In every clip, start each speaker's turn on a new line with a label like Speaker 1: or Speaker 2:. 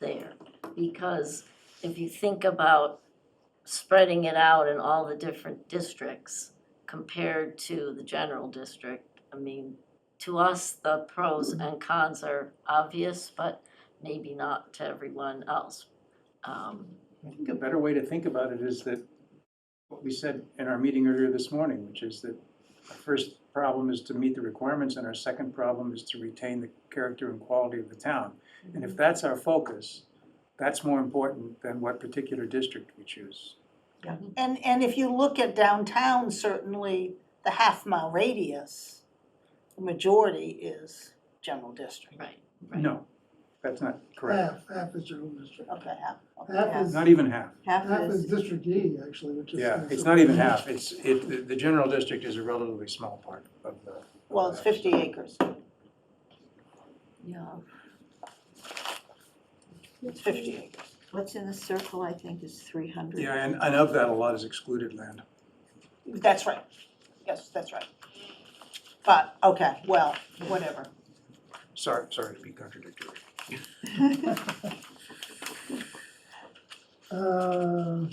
Speaker 1: there. Because if you think about spreading it out in all the different districts compared to the general district, I mean, to us, the pros and cons are obvious, but maybe not to everyone else. Um,
Speaker 2: I think a better way to think about it is that what we said in our meeting earlier this morning, which is that our first problem is to meet the requirements and our second problem is to retain the character and quality of the town. And
Speaker 3: Mm-hmm.
Speaker 2: if that's our focus, that's more important than what particular district we choose.
Speaker 3: And, and if you look at downtown, certainly the half mile radius, the majority is general district.
Speaker 1: Right, right.
Speaker 2: No, that's not correct.
Speaker 4: Half, half is general district.
Speaker 3: Okay, half, okay,
Speaker 4: Half
Speaker 3: half.
Speaker 4: is-
Speaker 2: Not even half.
Speaker 4: Half is District E, actually, which is.
Speaker 2: Yeah, it's not even half. It's, it, the, the general district is a relatively small part of the. of
Speaker 3: Well, it's
Speaker 2: that.
Speaker 3: fifty acres,
Speaker 5: Yeah.
Speaker 3: it's fifty acres.
Speaker 5: What's in the circle, I think, is three hundred.
Speaker 2: Yeah, and, and of that, a lot is excluded land.
Speaker 3: That's right, yes, that's right. But, okay, well, whatever.
Speaker 2: Sorry, sorry to be contradictory.
Speaker 4: Uh,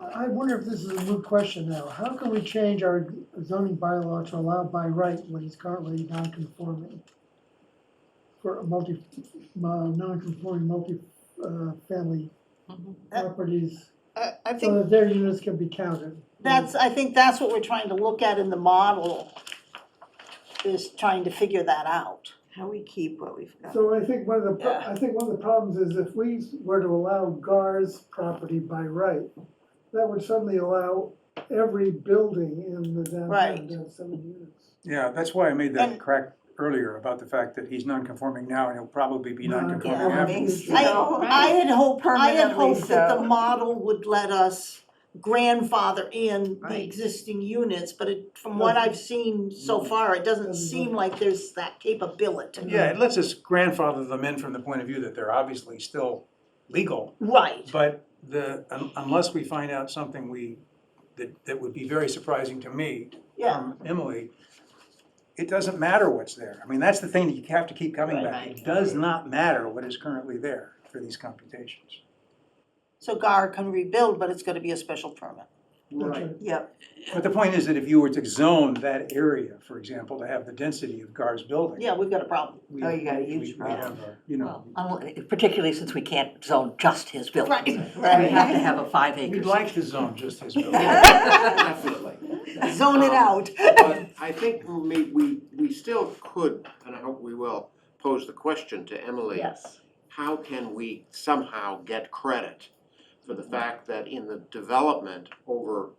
Speaker 4: I I wonder if this is a moot question now. How can we change our zoning bylaw to allow by right when it's currently non-conforming? For a multi, mo- non-conforming multi-family
Speaker 1: Mhm.
Speaker 3: Mm-hmm.
Speaker 4: properties,
Speaker 3: I, I
Speaker 4: so
Speaker 3: think
Speaker 4: that their units can be counted.
Speaker 3: that's, I think that's what we're trying to look at in the model, is trying to figure that out.
Speaker 5: How we keep what we've got.
Speaker 4: So I think one of the, pro-
Speaker 3: Yeah.
Speaker 4: I think one of the problems is if we were to allow GAR's property by right, that would suddenly allow every building in the downtown
Speaker 3: Right.
Speaker 4: to have seven units.
Speaker 2: Yeah, that's why I made that
Speaker 3: And-
Speaker 2: crack earlier about the fact that he's non-conforming now and he'll probably be
Speaker 3: Mm-hmm.
Speaker 2: non-conforming
Speaker 5: Yeah,
Speaker 4: Yeah.
Speaker 2: after.
Speaker 5: makes, you
Speaker 3: I,
Speaker 5: know,
Speaker 3: I had hoped, I had
Speaker 5: Permanently
Speaker 3: hoped that the
Speaker 5: so.
Speaker 3: model would let us grandfather in
Speaker 1: Right.
Speaker 3: the existing units, but it, from what I've seen so far, it doesn't
Speaker 4: Doesn't
Speaker 3: seem
Speaker 4: work.
Speaker 3: like there's that capability.
Speaker 2: Yeah, it lets us grandfather them in from the point of view that they're obviously still legal,
Speaker 3: Right,
Speaker 2: but the, un- unless we find out something we, that, that would be very surprising to me
Speaker 3: yeah,
Speaker 2: from Emily, it doesn't matter what's there. I mean, that's the thing that you have to keep coming
Speaker 3: Right.
Speaker 2: back. It does not matter what is currently there for these computations.
Speaker 3: so GAR can rebuild, but it's gonna be a special permit.
Speaker 4: Right.
Speaker 5: Yep,
Speaker 2: But the point is that if you were to zone that area, for example, to have the density of GAR's building.
Speaker 3: Yeah, we've got a problem.
Speaker 2: we-
Speaker 5: Oh, you got a
Speaker 2: we-
Speaker 5: huge
Speaker 2: we- we
Speaker 5: problem.
Speaker 2: have a, You know,
Speaker 6: Unli- Particularly since we can't zone just his building.
Speaker 3: Right.
Speaker 6: We have to have a five
Speaker 2: we'd
Speaker 6: acres.
Speaker 2: like to zone just his building.
Speaker 7: Definitely.
Speaker 3: Zone it
Speaker 7: Um,
Speaker 3: out.
Speaker 7: But I think we, we, we still could, and I hope we will, pose the question to Emily.
Speaker 1: Yes,
Speaker 7: How can we somehow get credit for the fact that in the development over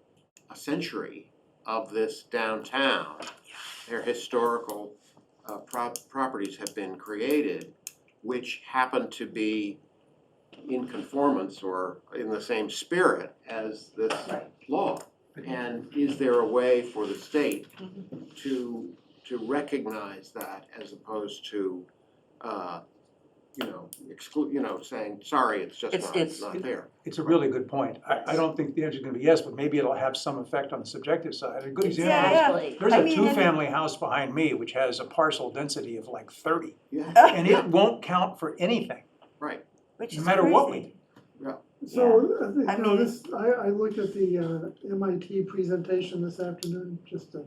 Speaker 7: a century of this downtown, their historical uh, prop- properties have been created, which happen to be in conformance or in the same spirit as this law? And is there a way for the state
Speaker 6: Mm-hmm.
Speaker 7: to, to recognize that as opposed to, uh, you know, exclude, you know, saying, sorry, it's just
Speaker 6: It's-
Speaker 7: not,
Speaker 6: it's-
Speaker 7: not there.
Speaker 2: It's a really good point. I, I don't think the answer's gonna be yes, but maybe it'll have some effect on the subjective side. A good example is,
Speaker 6: yeah.
Speaker 1: exactly.
Speaker 2: there's
Speaker 6: I
Speaker 2: a
Speaker 6: mean, and-
Speaker 2: two-family house behind me which has a parcel density of like thirty,
Speaker 7: Yeah,
Speaker 2: and it won't count for anything.
Speaker 7: right,
Speaker 5: which
Speaker 2: No
Speaker 5: is
Speaker 2: matter what we
Speaker 5: crazy.
Speaker 4: So, I think,
Speaker 5: I
Speaker 4: you know,
Speaker 5: mean-
Speaker 4: this, I, I looked at the uh, MIT presentation this afternoon, just to,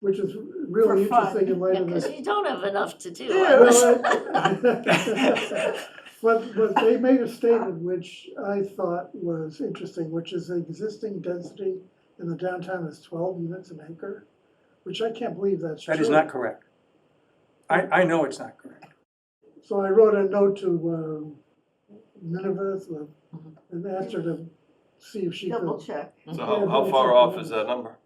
Speaker 4: which is really
Speaker 5: For fun.
Speaker 4: interesting in light
Speaker 1: Yeah,
Speaker 4: of this.
Speaker 1: because you don't have enough to do.
Speaker 4: Well, I- But, but they made a statement which I thought was interesting, which is the existing density in the downtown is twelve units an acre, which I can't believe that's true.
Speaker 2: That is not correct. I, I know it's not correct.
Speaker 4: So I wrote a note to uh, Minerva uh, and asked her to see if she
Speaker 5: Double
Speaker 4: could.
Speaker 5: check.
Speaker 8: So how, how far off is that number?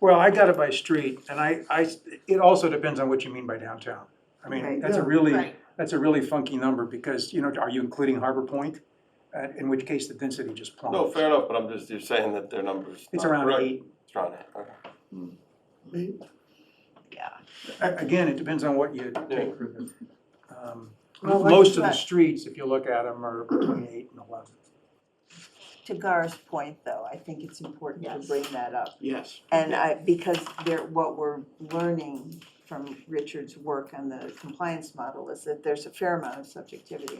Speaker 2: Well, I got it by street, and I, I, it also depends on what you mean by downtown. I mean,
Speaker 5: Right.
Speaker 2: that's a
Speaker 4: Yeah.
Speaker 2: really,
Speaker 3: Right.
Speaker 2: that's a really funky number, because, you know, are you including Harbor Point? Uh, in which case the density just plummets.
Speaker 8: No, fair enough, but I'm just, you're saying that their number's
Speaker 2: It's
Speaker 8: not
Speaker 2: around
Speaker 8: correct.
Speaker 2: eight.
Speaker 8: It's around eight, okay.
Speaker 4: They-
Speaker 2: A- Again, it depends on what you
Speaker 8: Yeah.
Speaker 2: take for the, um,
Speaker 4: Well, like-
Speaker 2: most of the streets, if you look at them, are between eight and eleven.
Speaker 5: To Gar's point, though, I think it's important to
Speaker 1: Yes.
Speaker 5: bring that up.
Speaker 7: yes.
Speaker 5: And I, because they're, what we're learning from Richard's work on the compliance model is that there's a fair amount of subjectivity